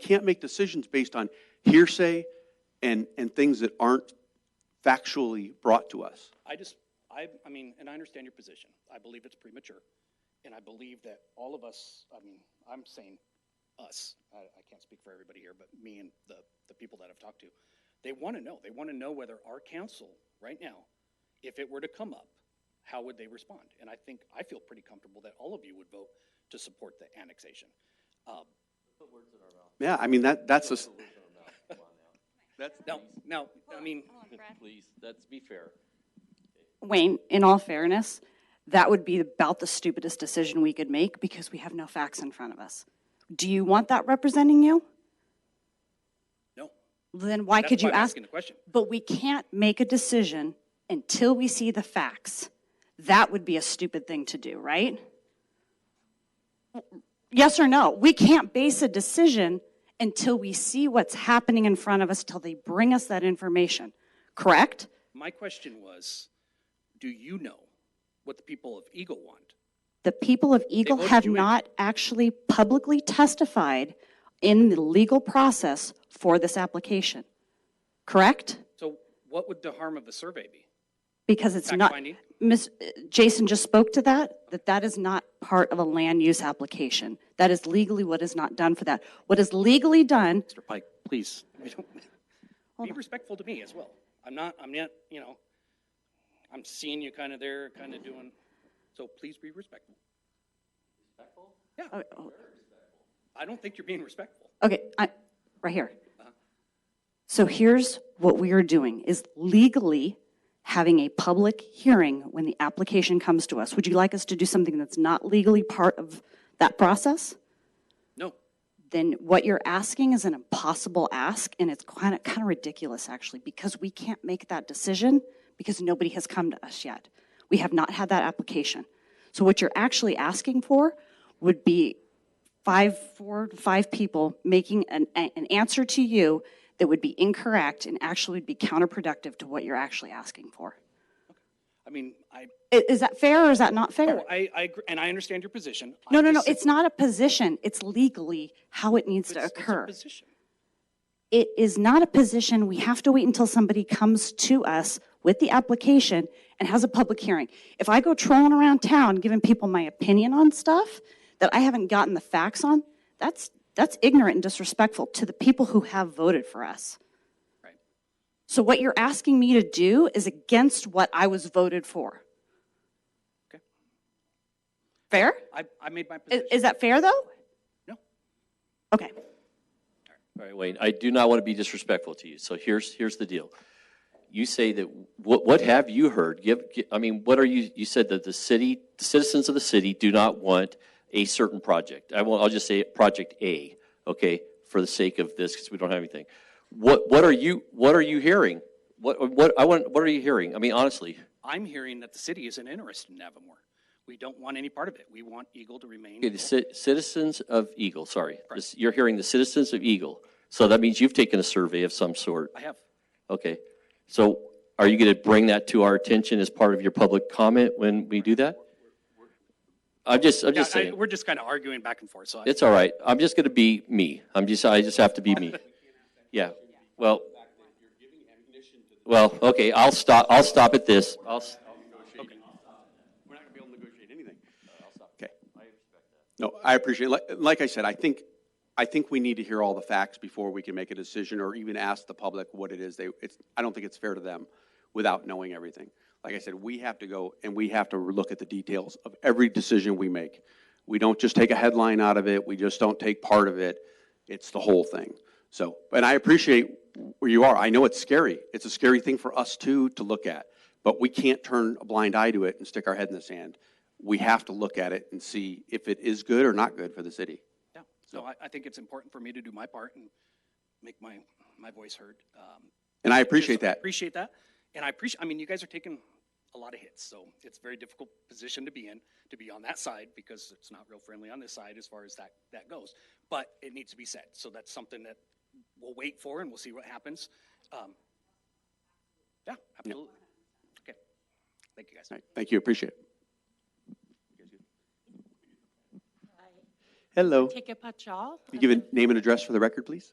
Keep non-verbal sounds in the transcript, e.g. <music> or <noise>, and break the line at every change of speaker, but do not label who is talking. can't make decisions based on hearsay and, and things that aren't factually brought to us.
I just, I, I mean, and I understand your position. I believe it's premature. And I believe that all of us, I mean, I'm saying us, I, I can't speak for everybody here, but me and the, the people that I've talked to, they want to know. They want to know whether our council right now, if it were to come up, how would they respond? And I think, I feel pretty comfortable that all of you would vote to support the annexation. Um,
Yeah, I mean, that, that's a, s-
now, now, I mean,
Please, let's be fair.
Wayne, in all fairness, that would be about the stupidest decision we could make because we have no facts in front of us. Do you want that representing you?
no.
Then why
That's
could
why
you
I'm
ask?
Asking the question.
But we can't make a decision until we see the facts. That would be a stupid thing to do, right? Yes or no? We can't base a decision until we see what's happening in front of us, till they bring us that information, correct?
My question was, do you know what the people of Eagle want?
The people of Eagle
voted
have
you in.
not actually publicly testified in the legal process for this application, correct?
So what would the harm of a survey be?
Because it's
Fact
not,
finding?
Ms., Jason just spoke to that, that that is not part of a land use application. That is legally what is not done for that. What is legally done,
Mr. Pike, <laughs> please, I don't, be respectful to me as well. I'm not, I'm not, you know, I'm seeing you kind of there, kind of doing, so please be respectful.
oh, oh,
I don't think you're being respectful.
Okay, I, right here. So here's what we are doing, is legally having a public hearing when the application comes to us. Would you like us to do something that's not legally part of that process?
No,
Then what you're asking is an impossible ask, and it's kind of, kind of ridiculous, actually, because we can't make that decision because nobody has come to us yet. We have not had that application. So what you're actually asking for would be five, four, five people making an, a- an answer to you that would be incorrect and actually would be counterproductive to what you're actually asking for.
I mean, I,
I- Is that fair or is that not fair?
oh, I, I, agree- and I understand your position. I
No, no, no,
just-
it's not a position. It's legally how it needs to
it's- it's a
occur.
position.
It is not a position, we have to wait until somebody comes to us with the application and has a public hearing. If I go trolling around town giving people my opinion on stuff that I haven't gotten the facts on, that's, that's ignorant and disrespectful to the people who have voted for us.
Right.
So what you're asking me to do is against what I was voted for.
Okay.
Fair?
I, I made my
Is,
position.
is that fair, though?
No,
Okay.
All right, Wayne, I do not want to be disrespectful to you, so here's, here's the deal. You say that, what, what have you heard? Give, gi- I mean, what are you, you said that the city, the citizens of the city do not want a certain project. I will, I'll just say Project A, okay, for the sake of this, because we don't have anything. What, what are you, what are you hearing? What, what, I want, what are you hearing? I mean, honestly.
I'm hearing that the city isn't interested in Avamore. We don't want any part of it. We want Eagle to remain.
Okay, the ci- citizens of Eagle, sorry. This- You're hearing the citizens of Eagle. So that means you've taken a survey of some sort.
I have.
Okay. So are you going to bring that to our attention as part of your public comment when we do that? I'm just, I'm
Yeah,
just
I,
saying,
we're just kind of arguing back and forth, so I-
it's all right. I'm just going to be me. I'm just, I just have to be me. Yeah, well. Well, okay, I'll stop, I'll stop at this. I'll, s-
We're not going to be able to negotiate anything. Okay. No, I appreciate, it. like, like I said, I think, I think we need to hear all the facts before we can make a decision or even ask the public what it is they, it's, I don't think it's fair to them without knowing everything. Like I said, we have to go and we have to look at the details of every decision we make. We don't just take a headline out of it, we just don't take part of it, it's the whole thing. So, and I appreciate where you are, I know it's scary, it's a scary thing for us too to look at, but we can't turn a blind eye to it and stick our head in the sand we have to look at it and see if it is good or not good for the city.
yeah. So I, I think it's important for me to do my part and make my, my voice heard. Um,
And I appreciate
so I
that.
Appreciate that. And I appreciate, I mean, you guys are taking a lot of hits, so it's a very difficult position to be in, to be on that side, because it's not real friendly on this side as far as that, that goes. But it needs to be said, so that's something that we'll wait for and we'll see what happens. Um, Yeah, absolutely. Okay. Thank you, guys.
All right, Thank you, appreciate it. Hello.
Take a Pachal.
You give a name and address for the record, please?